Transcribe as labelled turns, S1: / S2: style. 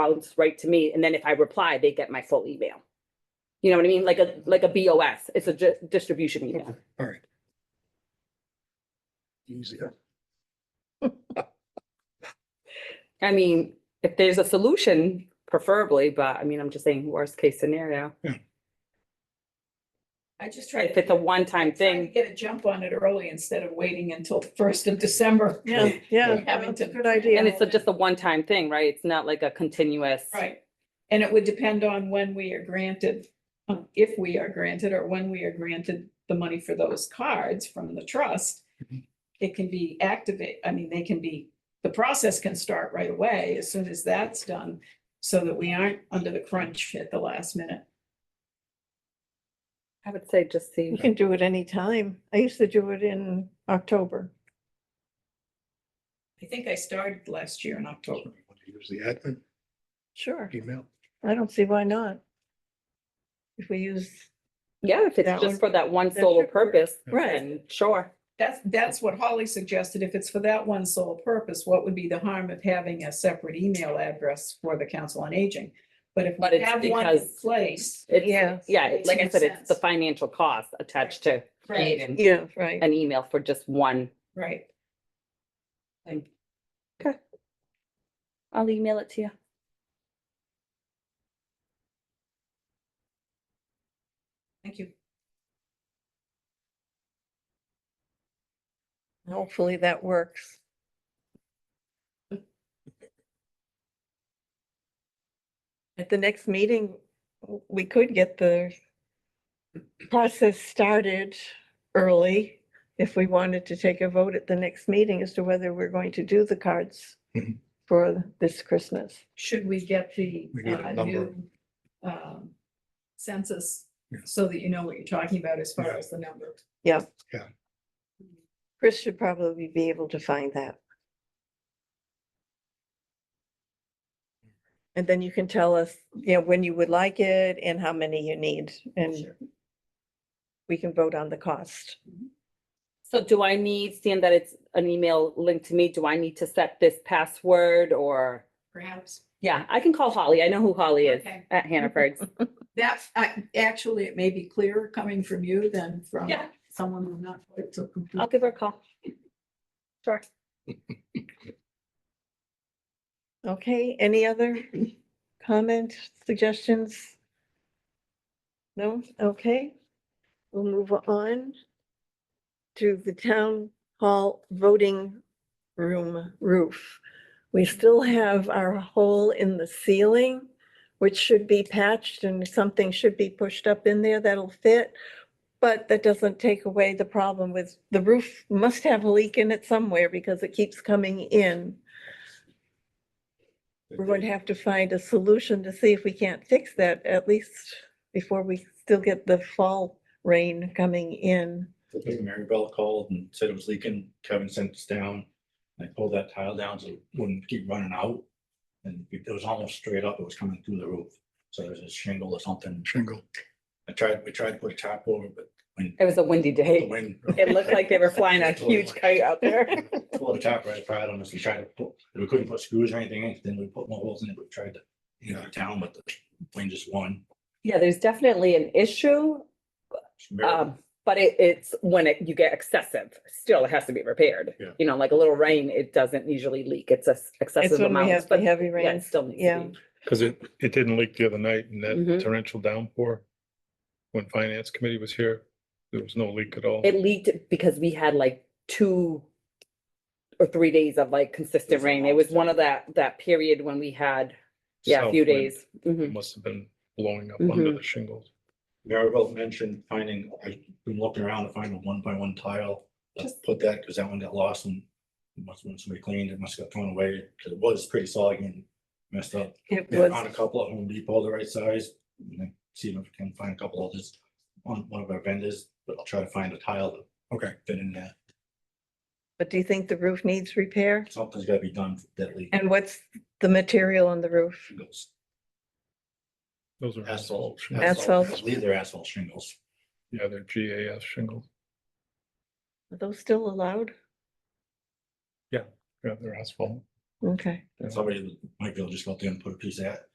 S1: bounce right to me, and then if I reply, they get my full email. You know what I mean? Like a, like a BOS, it's a di- distribution email.
S2: All right. Easier.
S1: I mean, if there's a solution, preferably, but I mean, I'm just saying worst case scenario.
S3: I just tried.
S1: If it's a one-time
S3: trying to
S1: thing,
S3: Get a jump on it early instead of waiting until the first of December.
S4: Yeah, yeah,
S3: Having
S4: that's a
S3: to-
S4: good idea.
S1: and it's a- just a one-time thing, right? It's not like a continuous.
S3: Right. And it would depend on when we are granted, uh, if we are granted or when we are granted the money for those cards from the trust. It can be activate, I mean, they can be, the process can start right away as soon as that's done. So that we aren't under the crunch at the last minute.
S1: I would say just see,
S4: You can do it anytime. I used to do it in October.
S3: I think I started last year in October.
S2: Want to Use the admin
S4: Sure.
S2: email.
S4: I don't see why not. If we use,
S1: yeah, if
S4: That
S1: it's
S4: one-
S1: just for that one
S4: that
S1: sole
S4: should work.
S1: purpose,
S4: right,
S1: then sure.
S3: That's, that's what Holly suggested. If it's for that one sole purpose, what would be the harm of having a separate email address for the Council on Aging? But if
S1: But
S3: we
S1: it's
S3: have one in
S1: because-
S3: place.
S1: It's,
S4: Yeah.
S1: yeah, it's- like I
S3: Makes
S1: said, it's the
S3: sense.
S1: financial cost attached to creating
S4: yeah, right.
S1: an email for just one
S3: Right.
S1: thing. Okay. I'll email it to you.
S3: Thank you.
S4: Hopefully that works. At the next meeting, w- we could get the process started early if we wanted to take a vote at the next meeting as to whether we're going to do the cards
S2: Mhm.
S4: for this Christmas.
S3: Should we get the
S2: We need a
S3: uh,
S2: number.
S3: new um, census
S2: Yeah.
S3: so that you know what you're talking about as far
S2: Yeah.
S3: as the number?
S4: Yeah.
S2: Yeah.
S4: Chris should probably be able to find that. And then you can tell us, you know, when you would like it and how many you need, and
S3: Sure.
S4: we can vote on the cost.
S1: So do I need, seeing that it's an email linked to me, do I need to set this password or?
S3: Perhaps
S1: Yeah, I can call Holly. I know who Holly is
S3: Okay.
S1: at Hannaford's.
S3: that, I- actually, it may be clearer coming from you than from
S1: Yeah.
S3: someone who's not quite so complete.
S1: I'll give her a call. Sure.
S4: Okay, any other comment, suggestions? No, okay. We'll move on to the town hall voting room roof. We still have our hole in the ceiling, which should be patched and something should be pushed up in there that'll fit. But that doesn't take away the problem with, the roof must have a leak in it somewhere because it keeps coming in. We're going to have to find a solution to see if we can't fix that at least before we still get the fall rain coming in.
S5: Mary Bell called and said it was leaking. Kevin sent us down. I pulled that tile down so it wouldn't keep running out. And it was almost straight up. It was coming through the roof. So there's a shingle or something.
S2: Shingle.
S5: I tried, we tried to put a tarp over, it, but when
S1: It was a windy
S5: the
S1: day.
S5: wind.
S1: It looked like they were flying a
S5: Totally.
S1: huge kite out there.
S5: Pulled the tarp right apart on us. We tried to put, we couldn't put screws or anything in. it. Then we put more holes in it. We tried to, you know, town, but the wind just won.
S1: Yeah, there's definitely an issue, um, but it, it's when it, you get excessive, still it has to be repaired.
S2: Yeah.
S1: You know, like a little rain, it doesn't usually leak. It's a s-
S4: It's
S1: excessive
S4: when we
S1: amount,
S4: have the
S1: but
S4: heavy
S1: yeah, it
S4: rains.
S1: still needs
S4: yeah.
S1: to be.
S6: Because it, it didn't leak the other night in
S1: Mhm.
S6: that torrential downpour. When finance committee was here, there was no leak at all.
S1: It leaked because we had like two or three days of like consistent
S5: was a
S1: rain.
S5: long
S1: It was one of that, that period when we had, yeah, a
S6: South
S1: few
S6: wind
S1: days. Mm-hmm. Mhm.
S6: Must have been blowing up under the shingles.
S5: Maribel mentioned finding, I've been looking around to find a one by one tile. Let's put that, because that one got lost and must, when somebody cleaned, it must have got thrown away, because it was pretty solid and messed up.
S4: It
S5: I
S4: was,
S5: Found a couple at Home Depot, the right size, and then see if I can find a couple others on one of our vendors, but I'll try to find a tile that
S2: Okay.
S5: fit in there.
S4: but do you think the roof needs repair?
S5: Something's gotta be done for that leak.
S4: And what's the material on the roof?
S5: Shingles,
S6: Those are asphalt
S5: asphalt.
S6: shingles.
S4: Asphalt.
S5: I believe they're asphalt shingles.
S6: Yeah, they're GAF shingles.
S4: Are those still allowed?
S6: Yeah, they're asphalt.
S4: Okay.
S5: Somebody might be able to just go up there and put a piece of that